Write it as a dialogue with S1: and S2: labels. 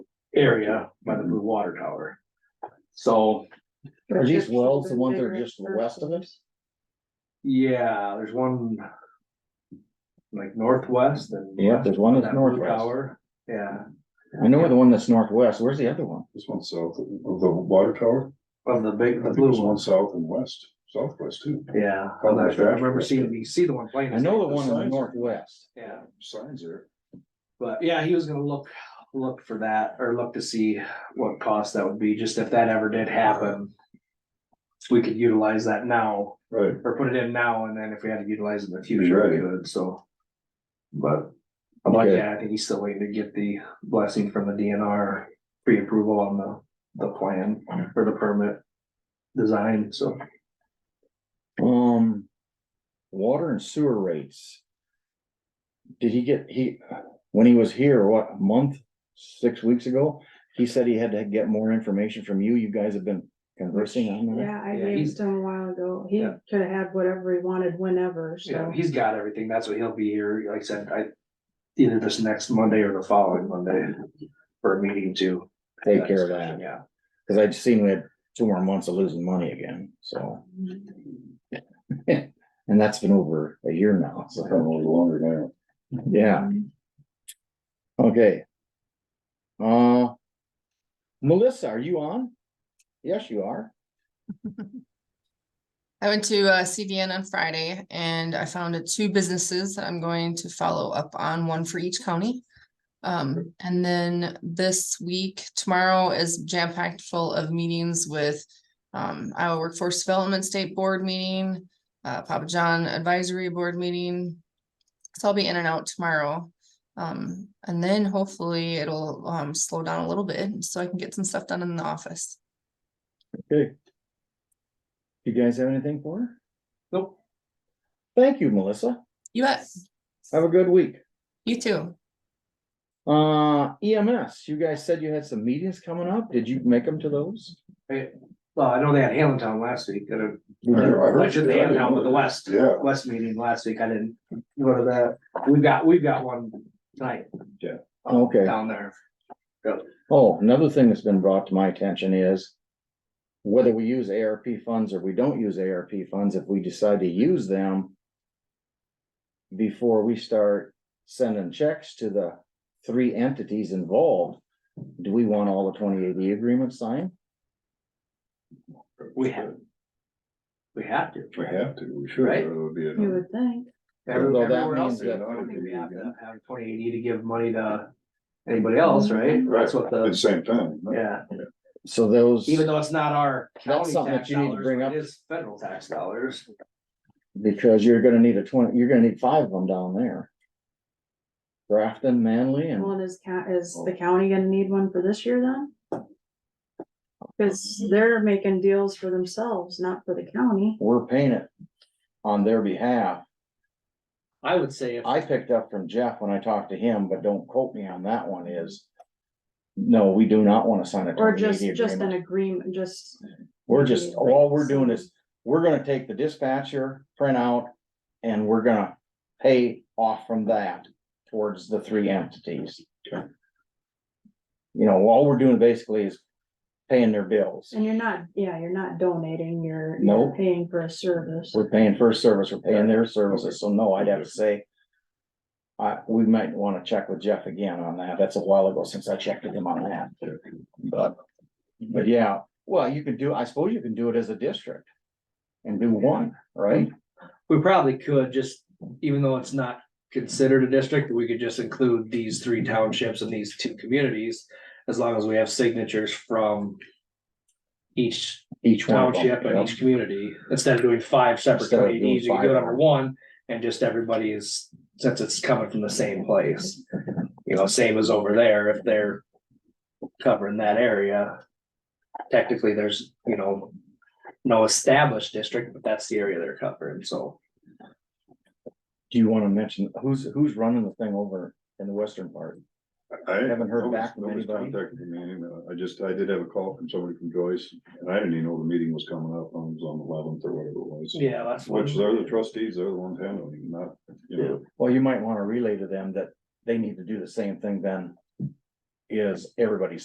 S1: area by the blue water tower. So,
S2: Are these wells the ones that are just west of us?
S1: yeah, there's one. Like northwest and.
S2: Yeah, there's one that's
S1: That blue
S2: northwest.
S1: tower, yeah,
S2: I know the one that's northwest. Where's the other one?
S3: This one's south of the water tower.
S1: of the
S3: I
S1: big, the
S3: think
S1: blue
S3: there's
S1: one,
S3: one south and west, southwest too.
S1: yeah, I
S3: Oh, that's right.
S1: remember seeing, you see the one playing.
S2: I know the one in the
S3: signs.
S2: northwest.
S1: Yeah.
S3: Signs there.
S1: But yeah, he was gonna look, look for that or look to see what cost that would be, just if that ever did happen. We could utilize that now
S3: Right.
S1: or put it in now and then if we had to utilize it in the
S3: You're
S1: future, we
S3: right.
S1: could, so. But I'm like,
S3: Okay.
S1: yeah, I think he's still waiting to get the blessing from the DNR pre-approval on the, the plan for the permit design, so.
S2: Um, water and sewer rates. Did he get, he, when he was here, what, a month, six weeks ago? He said he had to get more information from you. You guys have been conversing on that.
S4: Yeah, I
S1: Yeah,
S4: gave
S1: he's-
S4: it to him a while ago. He
S1: Yeah.
S4: could have had whatever he wanted whenever,
S1: Yeah,
S4: so.
S1: he's got everything. That's what he'll be here. Like I said, I either this next Monday or the following Monday for a meeting to
S2: Take care of that.
S1: Yeah,
S2: Cause I'd seen we had two more months of losing money again, so. And that's been over a year now,
S3: It's been a
S2: so,
S3: little longer now.
S2: yeah, okay. Uh, Melissa, are you on? Yes, you are.
S5: I went to uh, CDN on Friday and I found two businesses that I'm going to follow up on, one for each county. Um, and then this week, tomorrow is jam packed full of meetings with um, Iowa Workforce Development State Board meeting, uh, Papa John Advisory Board meeting. So I'll be in and out tomorrow. Um, and then hopefully it'll um, slow down a little bit so I can get some stuff done in the office.
S2: Okay. You guys have anything for her?
S1: nope.
S2: Thank you, Melissa.
S5: You bet.
S2: Have a good week.
S5: You too.
S2: Uh, EMS, you guys said you had some meetings coming up. Did you make them to those?
S1: Well, I know they had Allentown last week, at a-
S3: I heard- I
S1: or
S3: heard-
S1: I should say Allentown, but the West,
S3: Yeah.
S1: West meeting last week. I didn't go to that. We've got, we've got one tonight
S2: Okay.
S1: down there.
S2: Oh, another thing that's been brought to my attention is. Whether we use ARP funds or we don't use ARP funds, if we decide to use them. Before we start sending checks to the three entities involved, do we want all the twenty eighty agreements signed?
S1: We have. We have to.
S3: If we have to, we should.
S1: Right.
S3: It would be
S4: You
S3: a-
S4: would think.
S1: Every-
S2: Although that
S1: Everywhere else,
S2: means
S1: I
S2: that-
S1: don't think we have to have twenty eighty to give money to anybody else, right?
S3: Right.
S1: That's what
S3: At the
S1: the,
S3: same time. no?
S1: yeah.
S2: So those,
S1: Even though it's not our county
S2: something that
S1: tax
S2: you need to
S1: dollars,
S2: bring
S1: but
S2: up.
S1: it is federal tax dollars.
S2: because you're gonna need a twenty, you're gonna need five of them down there. Grafton, Manly and,
S4: Well, is ca- is the county gonna need one for this year then? Cause they're making deals for themselves, not for the county.
S2: we're paying it on their behalf.
S1: I would say if,
S2: I picked up from Jeff when I talked to him, but don't quote me on that one is. No, we do not wanna sign a
S4: Or
S2: twenty
S4: just,
S2: eighty
S4: just an
S2: agreement.
S4: agreement, just,
S2: We're just, all we're doing is, we're gonna take the dispatcher printout and we're gonna pay off from that towards the three entities.
S3: Okay.
S2: You know, all we're doing basically is paying their bills.
S4: and you're not, yeah, you're not donating, you're,
S2: No.
S4: you're paying for a service.
S2: We're paying first service, we're paying their services, so no, I'd have to say. I, we might wanna check with Jeff again on that, that's a while ago since I checked with him on that. But, but yeah, well, you could do, I suppose you can do it as a district. And do one, right?
S1: we probably could just, even though it's not considered a district, we could just include these three townships and these two communities. As long as we have signatures from each
S2: Each one. of them,
S1: township and
S2: yep.
S1: each community, instead of doing five separate
S2: Instead of doing
S1: communities, you could do
S2: five.
S1: it under one. And just everybody is, since it's coming from the same place, you know, same as over there, if they're covering that area. Technically, there's, you know, no established district, but that's the area they're covering, so.
S2: Do you wanna mention, who's, who's running the thing over in the western part?
S3: I
S2: Haven't heard
S3: nobody's-
S2: back from
S3: nobody's
S2: anybody.
S3: contacted me anyway. I just, I did have a call from somebody from Joyce and I didn't even know the meeting was coming up. I was on the eleventh or whatever it was.
S1: Yeah, that's.
S3: Which they're the trustees, they're the ones handling, it, not, you know.
S2: Well, you might wanna relay to them that they need to do the same thing then. Is everybody